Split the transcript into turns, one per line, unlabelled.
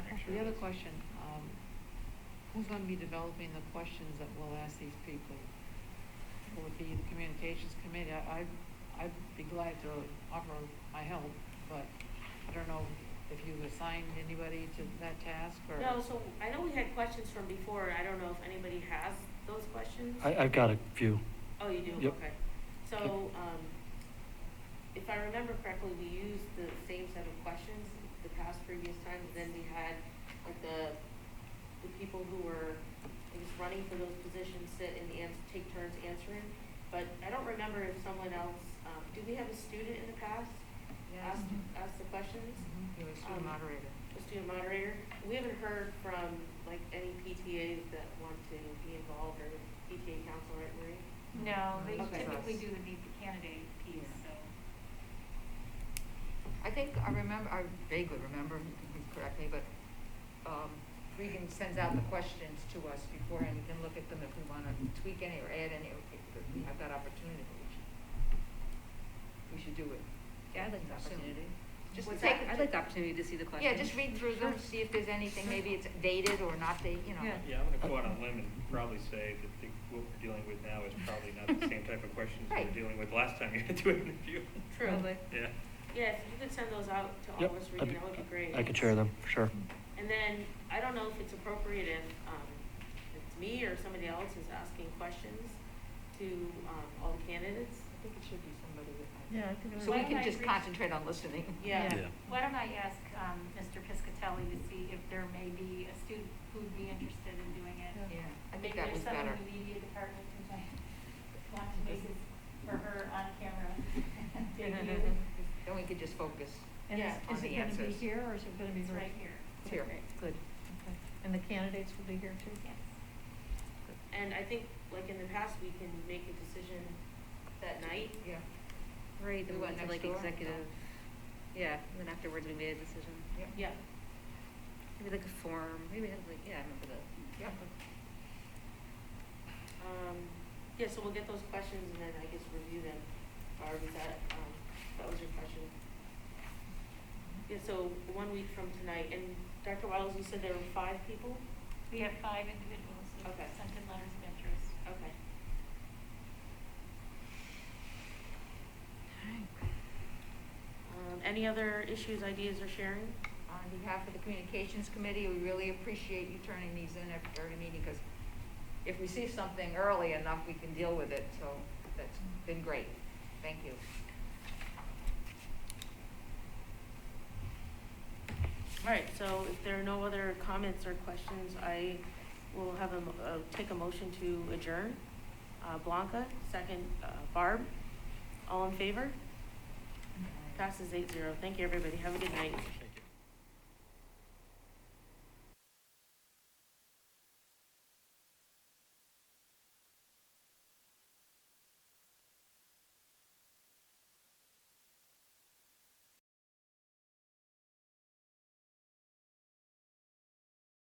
The other question, um, who's gonna be developing the questions that we'll ask these people? Will it be the communications committee? I, I- I'd be glad to offer my help, but I don't know if you assigned anybody to that task or.
No, so I know we had questions from before, I don't know if anybody has those questions?
I, I've got a few.
Oh, you do,
Yep.
okay. So, um, if I remember correctly, we used the same set of questions the past previous time, and then we had, like, the, the people who were, I guess, running for those positions sit and ans- take turns answering. But I don't remember if someone else, um, did we have a student in the past
Yes.
ask, ask the questions?
Mhm, You're a student
Um,
moderator.
the student moderator. We haven't heard from like any PTAs that want to be involved or PTA council, right, Marie?
No, they
Okay.
typically do the meet the candidate piece,
Yeah.
so.
I think I remember, I vaguely remember, you can please correct me, but um, Regan sends out the questions to us beforehand. We can look at them if we want to tweak any or add any, if if we have that opportunity, but we should, we should do it.
Yeah, I'd like the
Soon.
opportunity. Just
What's
take,
that?
I'd like the opportunity to see the question.
Yeah, just read through them, see if there's anything, maybe it's dated or not dated, you know.
Yeah.
Yeah, I'm gonna go out on a limb and probably say that the, what we're dealing with now is probably not the same type of questions we
Right.
were dealing with last time you had to interview.
Probably.
Yeah.
Yeah, if you could send those out to all
Yep.
of us,
I'd-
Regan, that would be great.
I could share them, for sure.
And then, I don't know if it's appropriate if, um, it's me or somebody else is asking questions to, um, all the candidates.
I think it should be somebody with.
Yeah, I think it
So
would-
we
Why
can
don't I
just
reach-
concentrate on listening.
Yeah.
Yeah.
Why don't I ask, um, Mr. Piscatelli to see if there may be a student who'd be interested in doing it?
Yeah, I think
Maybe
that
there's
was
someone
better.
in the media department who might want to make it for her on camera. debut.
Then we could just focus.
And is, is
Yeah,
on the
it gonna be
answers.
here or is it gonna be
It's
virtual?
right here.
It's here.
Okay, Good, okay. And the candidates will be here too?
Yes.
And I think, like in the past, we can make a decision that night.
Yeah.
Right,
We
then we
went
went to
next
like
door.
executive, yeah, and then afterwards we made a decision.
Yep.
Yeah.
Maybe like a form, maybe have like, yeah, I remember that.
Yep.
Um, yeah, so we'll get those questions and then I guess review them. Barb, is that, um, that was your question? Yeah, so one week from tonight, and Dr. Waddles, you said there were five people?
We have five individuals who
Okay.
sent in letters of interest.
Okay. Um, any other issues, ideas, or sharing?
On behalf of the Communications Committee, we really appreciate you turning these in at every meeting, because if we see something early enough, we can deal with it, so that's been great. Thank you.
All right, so if there are no other comments or questions, I will have a, mo- uh, take a motion to adjourn. Uh, Blanca, second, uh, Barb, all in favor? Passes eight zero. Thank you, everybody. Have a good night.